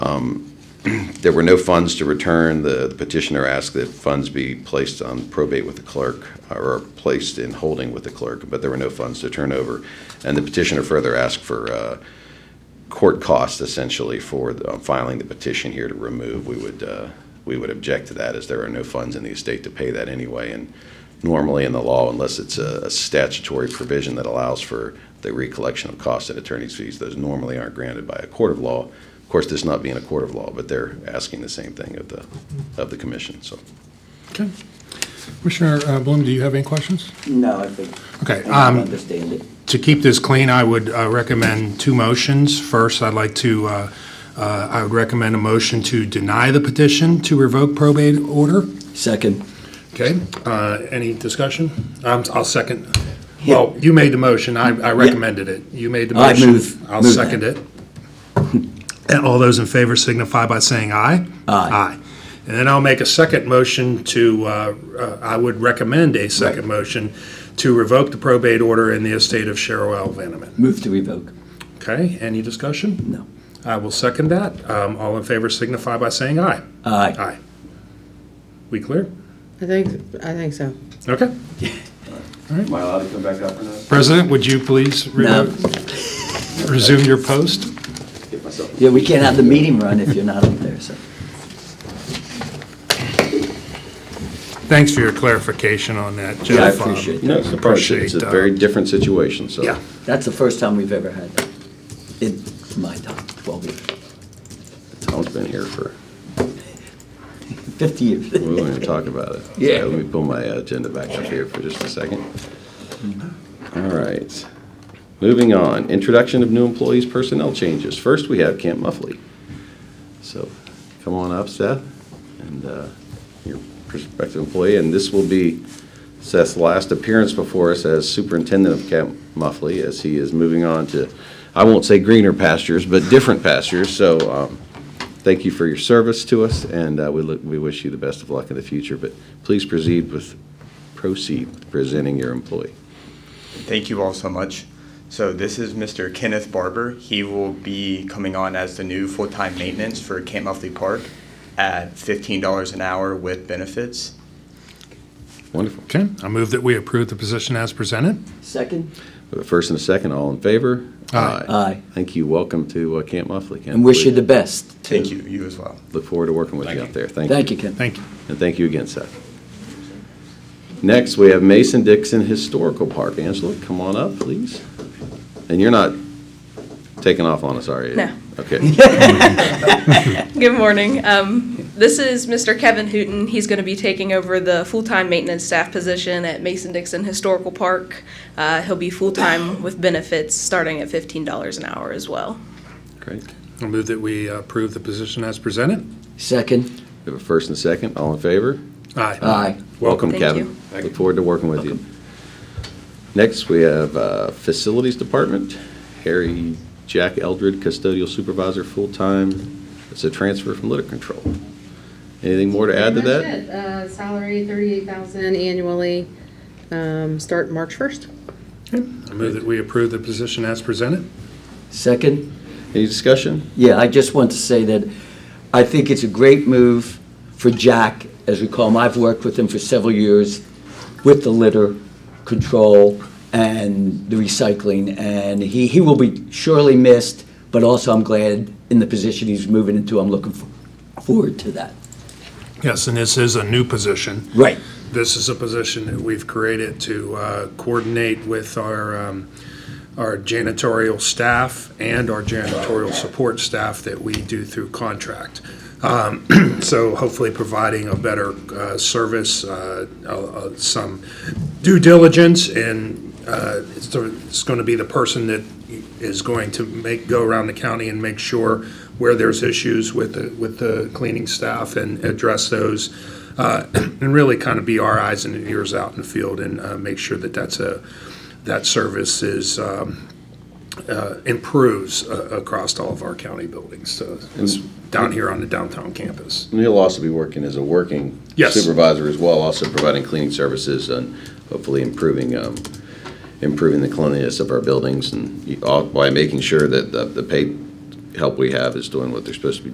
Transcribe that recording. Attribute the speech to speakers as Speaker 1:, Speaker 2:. Speaker 1: There were no funds to return. The petitioner asked that funds be placed on probate with the clerk, uh, or placed in holding with the clerk, but there were no funds to turn over. And the petitioner further asked for uh, court costs essentially for the- um, filing the petition here to remove. We would, uh, we would object to that as there are no funds in the estate to pay that anyway. And normally in the law, unless it's a a statutory provision that allows for the recollection of costs and attorney's fees, those normally aren't granted by a court of law. Of course, this not being a court of law, but they're asking the same thing of the, of the commission, so.
Speaker 2: Okay. Commissioner uh, Bloom, do you have any questions?
Speaker 3: No, I think.
Speaker 2: Okay,
Speaker 3: I think I
Speaker 2: um,
Speaker 3: understand it.
Speaker 2: To keep this clean, I would uh, recommend two motions. First, I'd like to, uh, uh, I would recommend a motion to deny the petition to revoke probate order.
Speaker 3: Second.
Speaker 2: Okay, uh, any discussion? Um, I'll second. Well, you made the motion, I I recommended it. You made the
Speaker 3: I
Speaker 2: motion.
Speaker 3: move-
Speaker 2: I'll
Speaker 3: move
Speaker 2: second it. And all those in favor signify by saying aye. Aye. And then I'll make a second motion to, uh, uh, I would recommend a second motion to revoke the probate order in the estate of Cheryl L. Vanaman.
Speaker 3: Move to revoke.
Speaker 2: Okay, any discussion?
Speaker 3: No.
Speaker 2: I will second that. Um, All in favor signify by saying aye.
Speaker 3: Aye.
Speaker 2: Aye. We clear?
Speaker 4: I think, I think so.
Speaker 2: Okay.
Speaker 1: Am I allowed to come back up or not?
Speaker 2: President, would you please re-
Speaker 3: No.
Speaker 2: resume your post?
Speaker 1: Get myself.
Speaker 3: Yeah, we can't have the meeting run if you're not up there, so.
Speaker 2: Thanks for your clarification on that, Jeff.
Speaker 3: Yeah, I
Speaker 2: Um,
Speaker 3: appreciate
Speaker 1: No,
Speaker 3: that.
Speaker 1: it's a- it's a
Speaker 2: Appreciate, uh,
Speaker 1: very different situation, so.
Speaker 2: Yeah,
Speaker 3: That's the first time we've ever had that in my time, 12 years,
Speaker 1: Tom's been here for,
Speaker 3: 50 years.
Speaker 1: we won't even talk about it.
Speaker 3: Yeah.
Speaker 1: So Let me pull my agenda back up here for just a second. All right. Moving on, introduction of new employees, personnel changes. First, we have Camp Muffley. So come on up, Seth, and uh, your prospective employee. And this will be Seth's last appearance before us as superintendent of Camp Muffley, as he is moving on to, I won't say greener pastures, but different pastures. So um, thank you for your service to us, and uh, we look- we wish you the best of luck in the future. But please proceed with, proceed presenting your employee.
Speaker 5: Thank you all so much. So this is Mr. Kenneth Barber. He will be coming on as the new full-time maintenance for Camp Muffley Park at $15 an hour with benefits.
Speaker 1: Wonderful.
Speaker 2: okay. I move that we approve the position as presented.
Speaker 3: Second?
Speaker 1: We have a First and a second, all in favor?
Speaker 2: Aye.
Speaker 3: Aye.
Speaker 1: Thank you. Welcome to uh, Camp Muffley, Ken.
Speaker 3: And wish you the best. too.
Speaker 5: Thank you, you as well.
Speaker 1: Look forward to working with you
Speaker 2: Thank
Speaker 1: out
Speaker 2: you.
Speaker 1: there. Thank you.
Speaker 3: Thank you, Ken.
Speaker 2: Thank you.
Speaker 1: And thank you again, Seth. Next, we have Mason Dixon Historical Park. Angela, come on up, please. And you're not taking off on us, are you?
Speaker 6: No.
Speaker 1: Okay.
Speaker 6: Good morning. Um, This is Mr. Kevin Hooton. He's going to be taking over the full-time maintenance staff position at Mason Dixon Historical Park. Uh, He'll be full-time with benefits, starting at $15 an hour as well.
Speaker 1: Great.
Speaker 2: I move that we approve the position as presented.
Speaker 3: Second?
Speaker 1: We have a first and a second, all in favor?
Speaker 2: Aye.
Speaker 3: Aye.
Speaker 1: Welcome,
Speaker 6: Thank
Speaker 1: Kevin. Look forward to working with you. Next, we have uh, Facilities Department, Harry Jack Eldred, Custodial Supervisor, full-time. It's a transfer from litter control. Anything more to add to
Speaker 7: Pretty
Speaker 1: that?
Speaker 7: much it. Uh, Salary, thirty-eight thousand annually, um, start March first.
Speaker 2: I move that we approve the position as presented.
Speaker 3: Second?
Speaker 1: Any discussion?
Speaker 3: Yeah, I just want to say that I think it's a great move for Jack, as we call him. I've worked with him for several years with the litter control and the recycling, and he, he will be surely missed, but also I'm glad in the position he's moving into. I'm looking for- forward to that.
Speaker 2: Yes, and this is a new position.
Speaker 3: Right.
Speaker 2: This is a position that we've created to uh, coordinate with our, um, our janitorial staff and our janitorial support staff that we do through contract. Um, So hopefully providing a better uh, service, uh, uh, uh, some due diligence, and uh, it's the- it's going to be the person that is going to make, go around the county and make sure where there's issues with the, with the cleaning staff and address those, uh, and really kind of be our eyes and ears out in the field and uh, make sure that that's a, that service is, um, uh, improves uh, across all of our county buildings. So it's down here on the downtown campus.
Speaker 1: And He'll also be working as a working
Speaker 2: Yes.
Speaker 1: supervisor as well, also providing cleaning services and hopefully improving, um, improving the cleanliness of our buildings and you- all- by making sure that the, the paid help we have is doing what they're supposed to be